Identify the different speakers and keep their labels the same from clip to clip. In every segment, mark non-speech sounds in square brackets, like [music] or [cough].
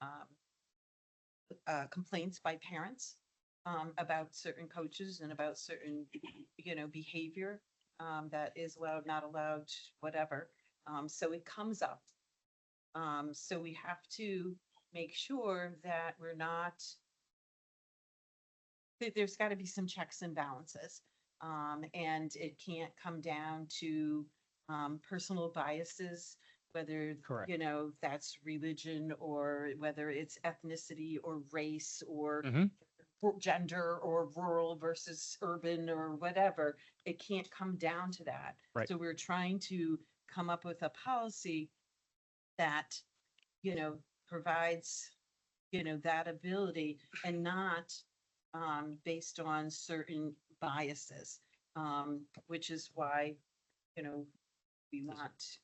Speaker 1: um, uh, complaints by parents um, about certain coaches and about certain, you know, behavior um, that is allowed, not allowed, whatever. Um, so it comes up. Um, so we have to make sure that we're not, that there's got to be some checks and balances. Um, and it can't come down to, um, personal biases, whether,
Speaker 2: Correct.
Speaker 1: you know, that's religion or whether it's ethnicity or race or
Speaker 2: Mhm.
Speaker 1: r- gender or rural versus urban or whatever. It can't come down to that.
Speaker 2: Right.
Speaker 1: So we're trying to come up with a policy that, you know, provides, you know, that ability and not um, based on certain biases, um, which is why, you know, we want,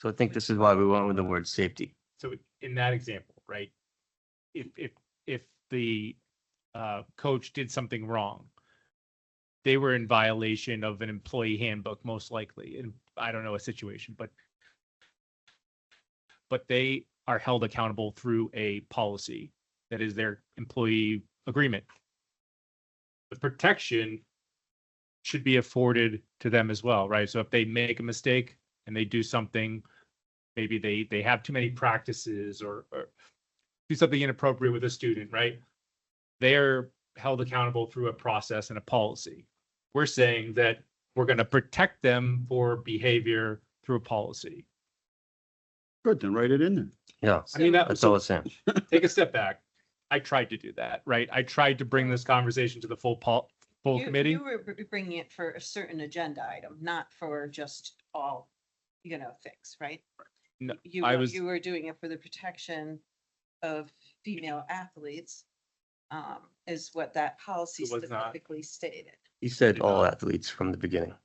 Speaker 3: So I think this is why we went with the word safety.
Speaker 2: So in that example, right? If, if, if the, uh, coach did something wrong, they were in violation of an employee handbook, most likely, and I don't know a situation, but but they are held accountable through a policy that is their employee agreement. The protection should be afforded to them as well, right? So if they make a mistake and they do something maybe they they have too many practices or, or do something inappropriate with a student right they're held accountable through a process and a policy we're saying that we're going to protect them for behavior through a policy
Speaker 4: Good, then write it in there.
Speaker 3: Yeah,
Speaker 2: i mean that,
Speaker 3: that's
Speaker 2: so
Speaker 3: all it's saying.
Speaker 2: take a step back i tried to do that right i tried to bring this conversation to the full pol- full
Speaker 1: you,
Speaker 2: committee
Speaker 1: you were br- bringing it for a certain agenda item, not for just all, you know, things, right?
Speaker 2: No,
Speaker 1: You,
Speaker 2: I
Speaker 1: were-
Speaker 2: was-
Speaker 1: you were doing it for the protection of female athletes, um, is what that policy
Speaker 2: It was not-
Speaker 1: specifically stated.
Speaker 3: He said all athletes from the beginning.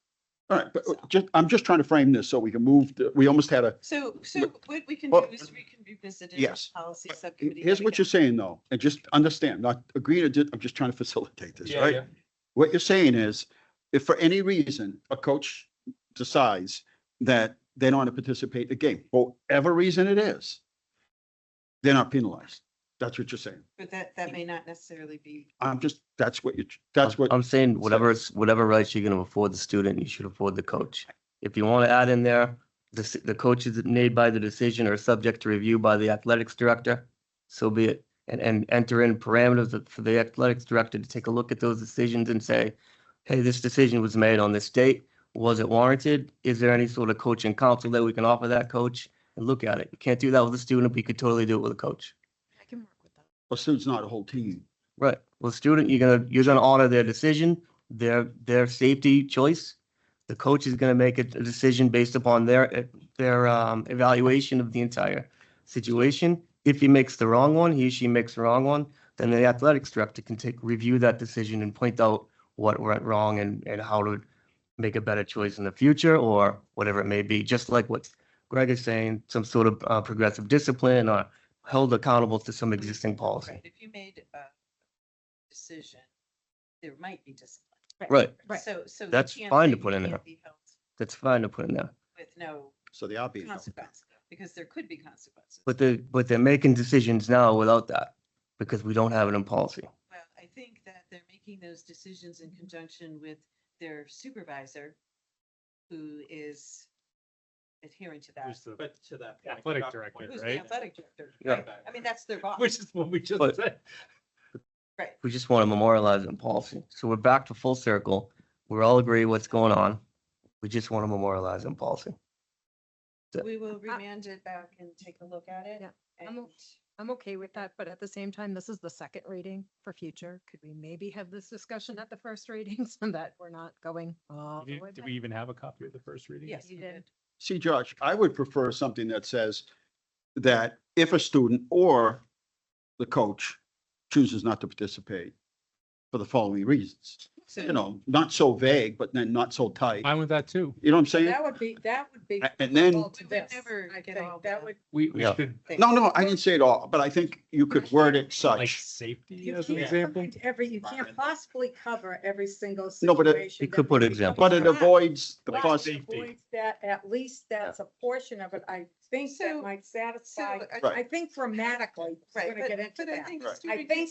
Speaker 4: All right, but uh,
Speaker 1: So-
Speaker 4: just, I'm just trying to frame this so we can move, the- we almost had a,
Speaker 1: So, so what we can do
Speaker 4: Well-
Speaker 1: is we can revisit it.
Speaker 4: Yes.
Speaker 1: Policy subcommittee.
Speaker 4: here's
Speaker 1: and
Speaker 4: what
Speaker 1: again-
Speaker 4: you're saying though, and just understand, not agreeing or di- I'm just trying to [laughs] facilitate this,
Speaker 2: Yeah,
Speaker 4: right?
Speaker 2: yeah.
Speaker 4: What you're saying is, if for any reason a coach decides that they don't want to participate in the game, for whatever reason it is, they're not penalized. That's what you're saying.
Speaker 1: But that, that may not necessarily be,
Speaker 4: I'm just, that's what you, that's
Speaker 3: I'm-
Speaker 4: what,
Speaker 3: I'm saying, whatever, it's whatever rights you're gonna afford the student, you should afford the coach. If you wanna add in there, the, s- the coaches made by the decision are subject to review by the athletics director, so be it. And, and enter in parameters that- for the athletics director to take a look at those decisions and say, hey, this decision was made on this date. Was it warranted? Is there any sort of coaching counsel that we can offer that coach? And look at it. You can't do that with a student, but you could totally do it with a coach.
Speaker 5: I can work with that.
Speaker 4: a student's not a whole team.
Speaker 3: Right. Well, student, you're gonna, you're gonna honor their decision, their, their safety choice. The coach is gonna make a a decision based upon their, eh, their, um, evaluation of the entire situation. If he makes the wrong one, he or she makes the wrong one, then the athletics director can take, review that decision and point out what went wrong and, and how to make a better choice in the future or whatever it may be, just like what Greg is saying, some sort of, uh, progressive discipline or held accountable to some existing policy.
Speaker 1: right, if you made a decision, there might be discipline.
Speaker 3: Right.
Speaker 5: Right.
Speaker 1: So, so. you
Speaker 3: That's
Speaker 1: can't
Speaker 3: fine to
Speaker 1: say you
Speaker 3: put in
Speaker 1: can't
Speaker 3: there.
Speaker 1: be held
Speaker 3: That's fine to put in there.
Speaker 1: With no
Speaker 4: So they are being. held.
Speaker 1: consequence, because there could be consequences.
Speaker 3: But they, but they're making decisions now without that because we don't have it in policy.
Speaker 1: Well, I think that they're making those decisions in conjunction with their supervisor, who is adhering to that.
Speaker 2: There's the
Speaker 6: But to that point.
Speaker 2: athletic
Speaker 6: Dr.
Speaker 2: director,
Speaker 6: Pointer-
Speaker 1: Who's the
Speaker 2: right?
Speaker 1: athletic director?
Speaker 3: Yeah.
Speaker 1: right? I mean, that's their boss.
Speaker 2: [laughs] which is what we just
Speaker 3: But-
Speaker 2: said
Speaker 3: We just want to memorialize it in policy. So we're back to full circle. We're all agree what's going on. We just want to memorialize it in policy.
Speaker 1: We will remand it back and take a look at it.
Speaker 5: Yeah, I'm o-
Speaker 1: And
Speaker 5: I'm okay with that, but at the same time, this is the second reading for future. Could we maybe have this discussion at the first reading [laughs] so that we're not going all the
Speaker 2: did,
Speaker 5: way
Speaker 2: did
Speaker 5: back?
Speaker 2: we even have a copy of the first reading
Speaker 1: yes,
Speaker 5: You
Speaker 1: we
Speaker 5: did.
Speaker 1: did.
Speaker 4: See, Josh, I would prefer something that says that if a student or the coach chooses not to participate for the following reasons,
Speaker 1: So
Speaker 4: you know, not so vague, but then not so tight.
Speaker 2: i'm with that too
Speaker 4: You know what I'm saying?
Speaker 7: That would be, that would be.
Speaker 4: A- and then-
Speaker 7: all to
Speaker 1: We would
Speaker 7: this,
Speaker 1: never
Speaker 7: I
Speaker 1: get
Speaker 7: think.
Speaker 1: all
Speaker 7: That
Speaker 1: that.
Speaker 7: would.
Speaker 2: we, we
Speaker 3: Yeah.
Speaker 2: should
Speaker 4: No, no, I didn't say it all, but I think you could word it
Speaker 2: like
Speaker 4: such.
Speaker 2: safety
Speaker 7: you
Speaker 2: as an
Speaker 7: can't
Speaker 2: example
Speaker 7: find Every, you can't possibly cover every single
Speaker 4: No, but it-
Speaker 7: situation.
Speaker 3: You could
Speaker 7: that
Speaker 3: put
Speaker 7: would
Speaker 3: example.
Speaker 4: But it
Speaker 7: come up.
Speaker 4: avoids the
Speaker 7: Right, it
Speaker 4: pos,
Speaker 2: Safety.
Speaker 7: avoids That, at least that's a portion of it. I think
Speaker 1: So-
Speaker 7: that might
Speaker 1: So
Speaker 7: satisfy,
Speaker 1: I-
Speaker 4: Right.
Speaker 7: I think grammatically, we're
Speaker 1: Right,
Speaker 7: gonna
Speaker 1: but-
Speaker 7: get into
Speaker 1: but I
Speaker 7: that.
Speaker 1: think
Speaker 4: Right.
Speaker 1: student
Speaker 7: I think